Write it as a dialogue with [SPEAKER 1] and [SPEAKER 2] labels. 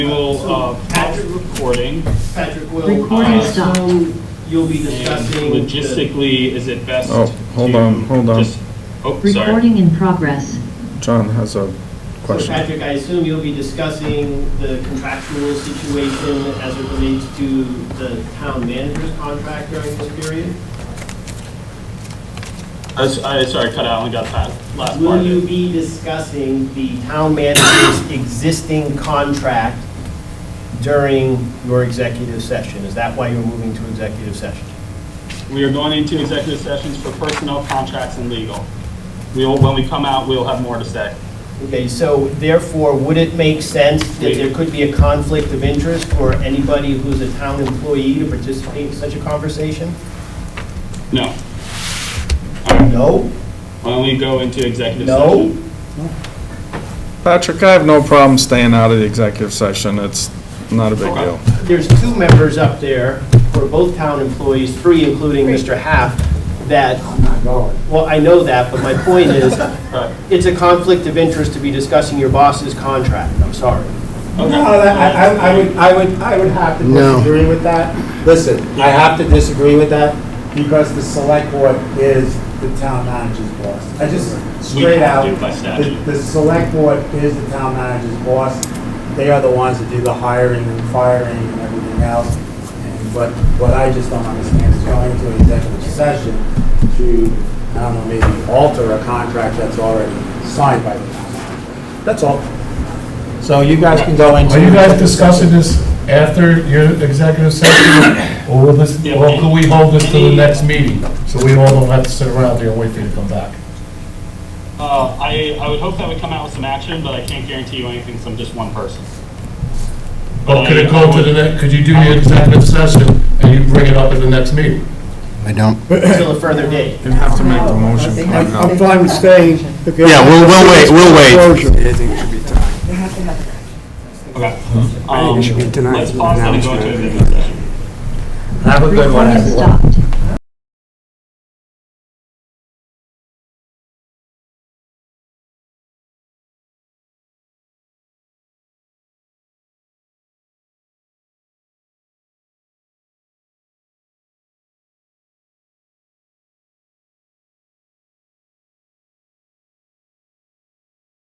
[SPEAKER 1] We will, uh, Patrick recording,
[SPEAKER 2] Patrick will.
[SPEAKER 3] Recording
[SPEAKER 2] uh,
[SPEAKER 3] stopped.
[SPEAKER 2] so You'll be
[SPEAKER 1] and
[SPEAKER 2] discussing. the-
[SPEAKER 1] logistically, is it best?
[SPEAKER 4] Oh, hold on,
[SPEAKER 1] to
[SPEAKER 4] hold on.
[SPEAKER 1] just- Oh, sorry.
[SPEAKER 3] Recording in progress.
[SPEAKER 4] John has a
[SPEAKER 2] So
[SPEAKER 4] question.
[SPEAKER 2] Patrick, I assume you'll be discussing the contractual situation as it relates to the town manager's contract during this period?
[SPEAKER 1] I, s- I- sorry, cut out, I only got that last part
[SPEAKER 2] Will
[SPEAKER 1] of
[SPEAKER 2] you
[SPEAKER 1] it.
[SPEAKER 2] be discussing the town manager's existing contract during your executive session? Is that why you're moving to executive session?
[SPEAKER 1] We are going into executive sessions for personnel contracts and legal. We will, when we come out, we'll have more to say.
[SPEAKER 2] Okay, so therefore, would it make sense that there could be a conflict of interest for anybody who's a town employee to participate in such a conversation?
[SPEAKER 1] No,
[SPEAKER 2] No?
[SPEAKER 1] why don't we go into executive
[SPEAKER 2] No?
[SPEAKER 1] session?
[SPEAKER 4] Patrick, I have no problem staying out of the executive session. It's not a big
[SPEAKER 1] Okay.
[SPEAKER 4] deal.
[SPEAKER 2] There's two members up there who are both town employees, three including Mr. Half, that... I'm not going. Well, I know that, but my point is,
[SPEAKER 1] Right,
[SPEAKER 2] it's a conflict of interest to be discussing your boss's contract. I'm sorry.
[SPEAKER 5] No, that- I, I- I would, I would, I would have to disagree with that. Listen, I have to disagree with that because the select board is the town manager's boss. I just, straight
[SPEAKER 1] have
[SPEAKER 5] out,
[SPEAKER 1] to by statute.
[SPEAKER 5] the, the select board is the town manager's boss. They are the ones that do the hiring and firing and everything else. And what, what I just don't understand is going into an executive session to, I don't know, maybe alter a contract that's already signed by the town manager. That's all. So you guys can go into.
[SPEAKER 6] Are you guys discussing this after your executive session, or will this,
[SPEAKER 1] Yeah,
[SPEAKER 6] or
[SPEAKER 1] any-
[SPEAKER 6] can we hold this to the
[SPEAKER 1] any-
[SPEAKER 6] next meeting? So we all don't have to sit around here and wait for you to come back.
[SPEAKER 1] Uh, I, I would hope that would come out with some action, but I can't guarantee you anything from just one person.
[SPEAKER 6] Or could it go to the next, could you do your executive session and you bring it up at the next meeting?
[SPEAKER 7] I don't.
[SPEAKER 2] Until a further date.
[SPEAKER 4] You have to make the motion.
[SPEAKER 5] I'm fine with staying.
[SPEAKER 7] Yeah, we'll, we'll wait, we'll wait.
[SPEAKER 1] Okay. I
[SPEAKER 7] think it should be tonight,
[SPEAKER 1] Let's pause that and go into
[SPEAKER 7] announcement.
[SPEAKER 1] executive session.
[SPEAKER 5] Have a good one,
[SPEAKER 3] Recording
[SPEAKER 5] everyone.
[SPEAKER 3] stopped.